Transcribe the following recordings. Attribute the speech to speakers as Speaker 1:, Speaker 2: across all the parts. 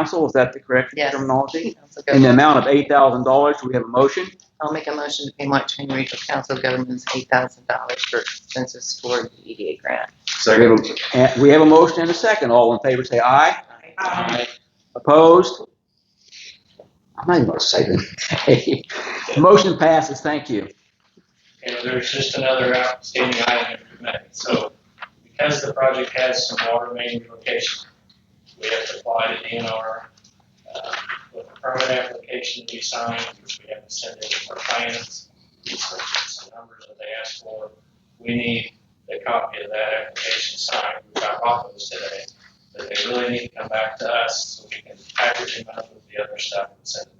Speaker 1: council, is that the correct
Speaker 2: Yes.
Speaker 1: terminology?
Speaker 2: Council
Speaker 1: In the
Speaker 2: government-
Speaker 1: amount of eight thousand dollars, we have a motion.
Speaker 2: I'll make a motion to pay Montana Regional Council of Governments eight thousand dollars for expenses for the EDA grant.
Speaker 1: We have a- and We have a motion and a second. All in favor, say aye. Aye. Opposed? I'm not even gonna say that. Motion passes, thank you.
Speaker 3: you know, there's just another outstanding item that we met. So because the project has some water main relocation, we have to apply to DNR. uh, With the permit application we signed, which we have to send in our plans, some numbers that they asked for. We need a copy of that application signed. We got offers today, but they really need to come back to us so we can package them up with the other stuff and send them in.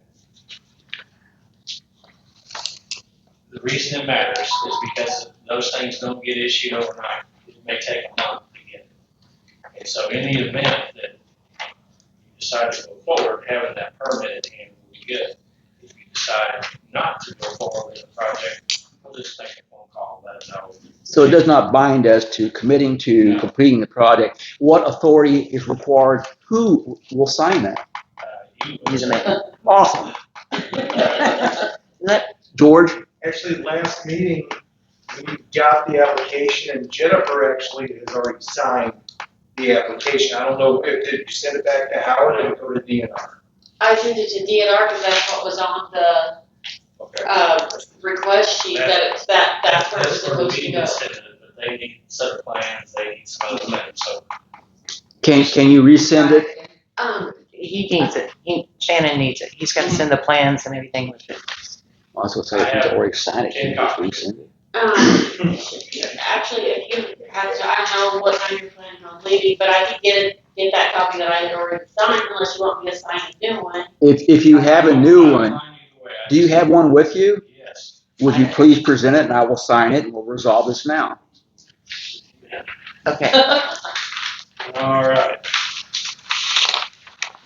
Speaker 3: the reason it matters is because those things don't get issued overnight. It may take a month to get. it. And so in the event that you decide to go forward, having that permit in hand will be good. If you decide not to go forward with the project, we'll just make a phone call, let them know.
Speaker 1: So it does not bind us to committing to completing the project. What authority is required? Who will sign that?
Speaker 3: Uh, you-
Speaker 2: Use a man.
Speaker 1: Awesome. George?
Speaker 4: Actually, last meeting, we got the application and Jennifer actually has already signed the application. I don't know if, did you send it back to Howard or go to DNR?
Speaker 5: I sent it to DNR because that's what was on the,
Speaker 4: Okay.
Speaker 5: uh, request sheet, that, that, that's where it was
Speaker 3: That's where
Speaker 5: supposed to
Speaker 3: we
Speaker 5: go.
Speaker 3: consider it, but they need a set of plans, they need some other things, so
Speaker 1: Can, can you resend it?
Speaker 5: Um,
Speaker 2: He needs it. He, Shannon needs it. He's gotta send the plans and everything with it.
Speaker 1: I was gonna say, if he's already signed it, can you just resend it?
Speaker 5: um, actually, if you have to, I know what time you're planning on leaving, but I can get, it- get that copy that I had already signed unless you want me to sign a new one.
Speaker 1: If, if you have a new one, do you have one with you?
Speaker 3: Yes.
Speaker 1: Would you please present it and I will sign it and we'll resolve this now?
Speaker 2: Okay,
Speaker 3: All right,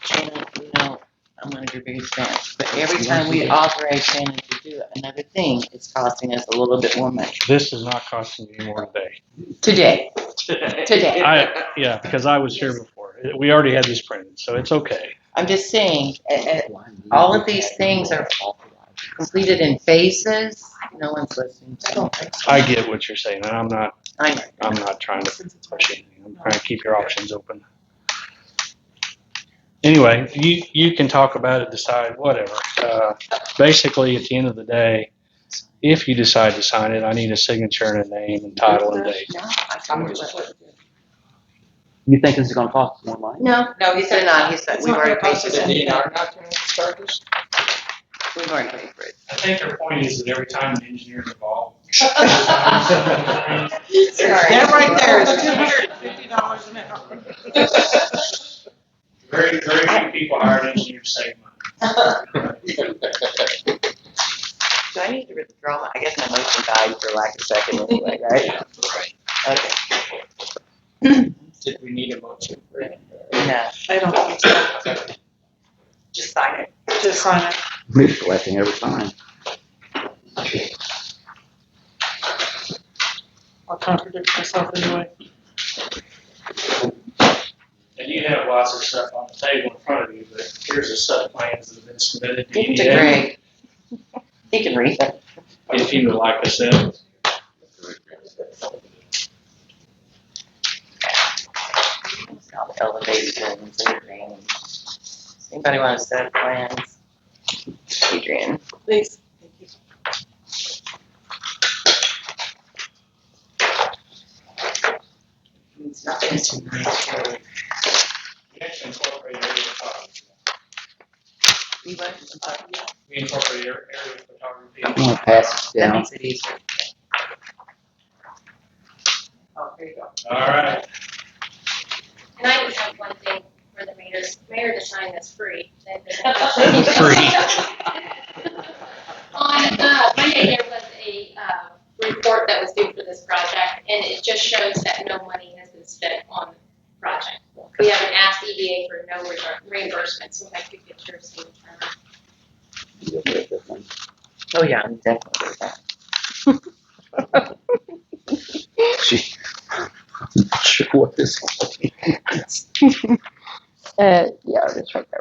Speaker 2: Shannon, you know, I'm one of your biggest fans, but every time we authorize Shannon to do another thing, it's costing us a little bit more money.
Speaker 6: This is not costing me more today.
Speaker 2: Today,
Speaker 3: today.
Speaker 2: today.
Speaker 6: I, yeah, because I was here before. We already had this printed, so it's okay.
Speaker 2: I'm just saying, a- a- all of these things are completed in phases. No one's listening. I don't think so.
Speaker 6: I get what you're saying, and I'm not,
Speaker 2: I know.
Speaker 6: I'm not trying to push anything. I'm trying to keep your options open. Anyway, you, you can talk about it, decide, whatever. Uh, basically, at the end of the day, if you decide to sign it, I need a signature and a name and title and date.
Speaker 2: No, I don't know what-
Speaker 1: You think this is gonna cost more money?
Speaker 2: No, no, he said not, he said, we've already paid for
Speaker 3: It's not gonna
Speaker 2: it.
Speaker 3: cost
Speaker 2: We've already paid for it.
Speaker 3: I think their point is that every time an engineer is involved.
Speaker 2: That right there is two
Speaker 3: hundred and fifty dollars an hour. Very, very few people hire an engineer to save money.
Speaker 2: Do I need to withdraw? my- I guess my motion died for lack of second anyway, right? Okay,
Speaker 3: Did we need a motion for it?
Speaker 2: no.
Speaker 7: I don't think so. Just sign it. Just sign it.
Speaker 1: We're collecting every time.
Speaker 7: I'll contradict myself anyway.
Speaker 3: And you have lots of stuff on the table in front of you, but here's a set of plans that have been submitted to
Speaker 2: It's
Speaker 3: EDA,
Speaker 2: great. He can read it.
Speaker 3: if you would like us in.
Speaker 2: All the elevated buildings and everything. Anybody want to set plans? Adrian,
Speaker 7: Please.
Speaker 2: it's not been too much.
Speaker 3: We actually incorporated area photography.
Speaker 2: You want-
Speaker 3: We incorporated area photography.
Speaker 1: I'm gonna pass this
Speaker 2: That
Speaker 1: down.
Speaker 2: makes it easier.
Speaker 7: Oh, here you go.
Speaker 3: All right,
Speaker 8: And I just have one thing for the mayor, mayor to sign that's free.
Speaker 6: Free.
Speaker 8: On uh, Monday, there was a uh, report that was due for this project, and it just shows that no money has been spent on the project. We haven't asked EDA for no reimburse- reimbursement, so I could get your signature.
Speaker 2: Oh, yeah, I'm definitely with that.
Speaker 1: She- Sure what this
Speaker 2: Uh, yeah, that's right there.